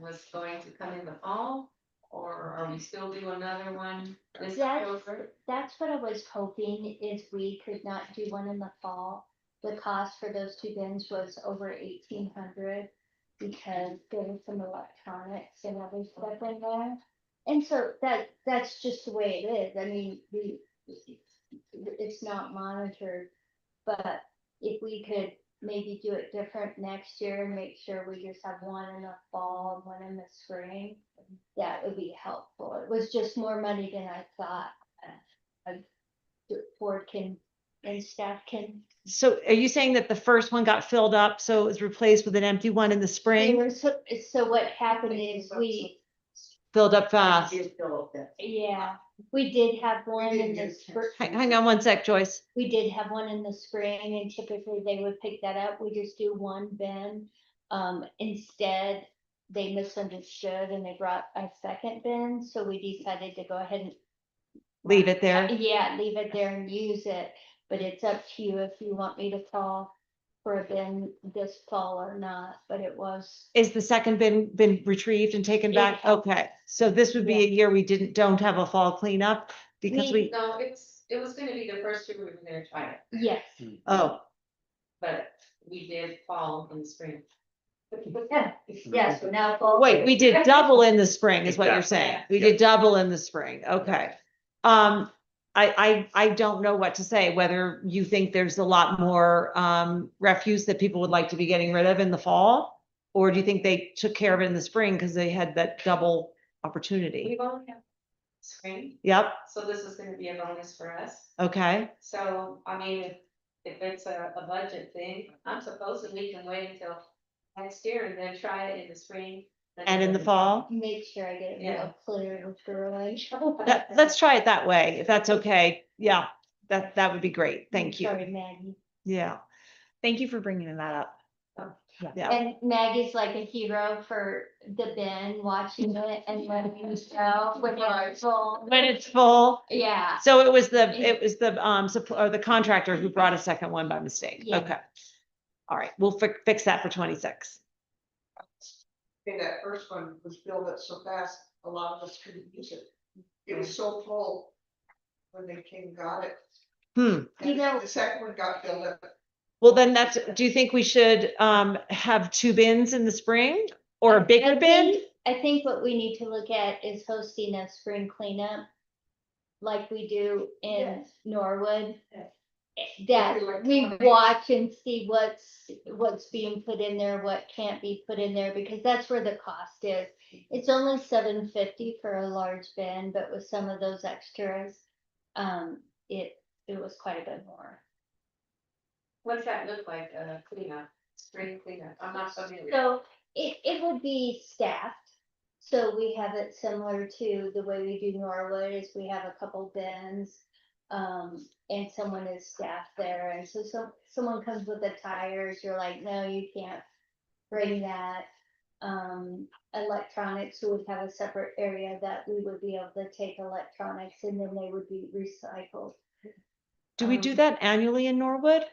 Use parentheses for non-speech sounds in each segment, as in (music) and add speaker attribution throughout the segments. Speaker 1: was going to come in the fall? Or are we still do another one this
Speaker 2: That's-
Speaker 1: October?
Speaker 2: That's what I was hoping is we could not do one in the fall. The cost for those two bins was over eighteen hundred because there was some electronics and other stuff in there. And so that, that's just the way it is. I mean, we, it's not monitored. But if we could maybe do it different next year and make sure we just have one in the fall and one in the spring, that would be helpful. It was just more money than I thought the board can and staff can.
Speaker 3: So are you saying that the first one got filled up, so it was replaced with an empty one in the
Speaker 2: They
Speaker 3: spring?
Speaker 2: were so, so what happened is we,
Speaker 3: Filled up fast.
Speaker 2: yeah, we did have one in the spring.
Speaker 3: Hang, hang on one sec, Joyce.
Speaker 2: We did have one in the spring and typically they would pick that up. We just do one bin. Um, instead, they misunderstood and they brought a second bin, so we decided to go ahead and
Speaker 3: Leave it there.
Speaker 2: Yeah, leave it there and use it, but it's up to you if you want me to call for a bin this fall or not, but it was.
Speaker 3: Is the second bin, been retrieved and taken back?
Speaker 2: Yeah.
Speaker 3: Okay, so this would be a year we didn't, don't have a fall cleanup because
Speaker 2: We-
Speaker 3: we,
Speaker 1: No, it's, it was gonna be the first year we were gonna try it,
Speaker 2: Yes,
Speaker 3: oh,
Speaker 1: but we did fall in the spring.
Speaker 4: Yeah, yes, so now.
Speaker 3: Mm-hmm. wait, we did double in the spring is what you're
Speaker 5: Exactly.
Speaker 3: saying. We
Speaker 5: Yeah.
Speaker 3: did double in the spring. Okay. Um, I, I, I don't know what to say, whether you think there's a lot more, um, refuse that people would like to be getting rid of in the fall? Or do you think they took care of it in the spring because they had that double opportunity?
Speaker 1: We've only had spring,
Speaker 3: Yep,
Speaker 1: so this is gonna be a bonus for us.
Speaker 3: okay,
Speaker 1: So, I mean, if, if it's a, a budget thing, I'm supposing we can wait until next year and then try it in the spring.
Speaker 3: and in the fall?
Speaker 2: make sure I get it
Speaker 1: Yeah.
Speaker 2: real clear and thorough.
Speaker 3: That, let's try it that way, if that's okay. Yeah, that, that would be great. Thank you.
Speaker 2: Sorry, Maggie.
Speaker 3: Yeah. Thank you for bringing that
Speaker 1: Oh.
Speaker 3: up. Yeah,
Speaker 2: And Maggie's like a hero for the bin,
Speaker 4: (laughs)
Speaker 2: watching it and letting us know with our soul.
Speaker 3: when it's full.
Speaker 2: Yeah,
Speaker 3: So it was the,
Speaker 2: Yeah.
Speaker 3: it was the, um, supp- or the contractor who brought a second one by mistake.
Speaker 2: Yeah.
Speaker 3: Okay. All right, we'll fi- fix that for twenty-six.
Speaker 6: Okay, that first one was filled up so fast, a lot of us couldn't use it. It was so full when they came and got it.
Speaker 3: Hmm.
Speaker 2: You know-
Speaker 6: The second one got filled up.
Speaker 3: Well, then that's, do you think we should, um, have two bins in the spring or a bigger
Speaker 2: I
Speaker 3: bin?
Speaker 2: think- I think what we need to look at is hosting a spring cleanup like we do in
Speaker 4: Yes.
Speaker 2: Norwood.
Speaker 4: Yes.
Speaker 2: That
Speaker 6: Like
Speaker 2: we
Speaker 6: electronic.
Speaker 2: watch and see what's, what's being put in there, what can't be put in there, because that's where the cost is. It's only seven fifty for a large bin, but with some of those extras, um, it, it was quite a bit more.
Speaker 1: What's that look like, uh, cleanup, spring cleanup? I'm not familiar.
Speaker 2: So it, it would be staffed. So we have it similar to the way we do Norwood is we have a couple bins. Um, and someone is staffed there. And so, so someone comes with the tires, you're like, no, you can't bring that. Um, electronics would have a separate area that we would be able to take electronics and then they would be recycled.
Speaker 3: Do we do
Speaker 1: Um,
Speaker 3: that annually in Norwood?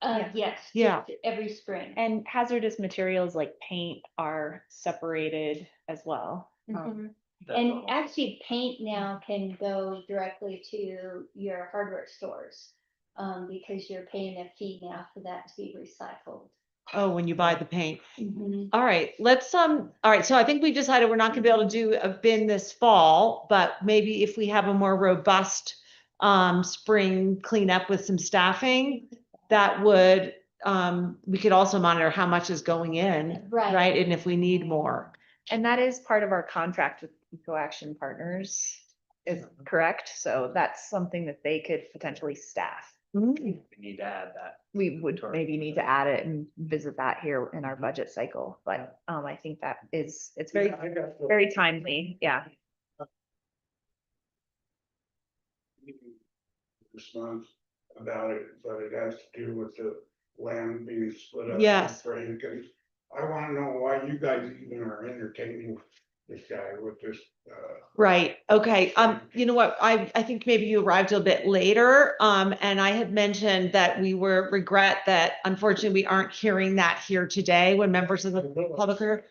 Speaker 2: Uh,
Speaker 7: Yeah.
Speaker 2: yes.
Speaker 3: Yeah.
Speaker 2: Every spring.
Speaker 7: And hazardous materials like paint are separated as well. um,
Speaker 2: Mhm.
Speaker 5: That's
Speaker 2: And
Speaker 5: all.
Speaker 2: actually, paint now can go directly to your hardware stores. Um, because you're paying a fee now for that to be recycled.
Speaker 3: Oh, when you buy the paint.
Speaker 7: Mm-hmm.
Speaker 3: All right, let's, um, all right, so I think we've decided we're not gonna be able to do a bin this fall, but maybe if we have a more robust um, spring cleanup with some staffing, that would, um, we could also monitor how much is going in,
Speaker 2: Right,
Speaker 3: right? And if we need more.
Speaker 7: And that is part of our contract with Eco Action Partners, is correct? So that's something that they could potentially staff.
Speaker 3: Mm,
Speaker 5: We need to add that.
Speaker 7: We would
Speaker 5: Sure.
Speaker 7: maybe need to add it and visit that here in our budget cycle, but um, I think that is, it's very, very timely, yeah.
Speaker 8: response about it, but it has to do with the land being split up. in
Speaker 3: Yes.
Speaker 8: Frank, and I wanna know why you guys even are entertaining this guy with this, uh,
Speaker 3: Right, okay, um, you know what, I, I think maybe you arrived a bit later, um, and I had mentioned that we were regret that unfortunately we aren't hearing that here today when members of the public are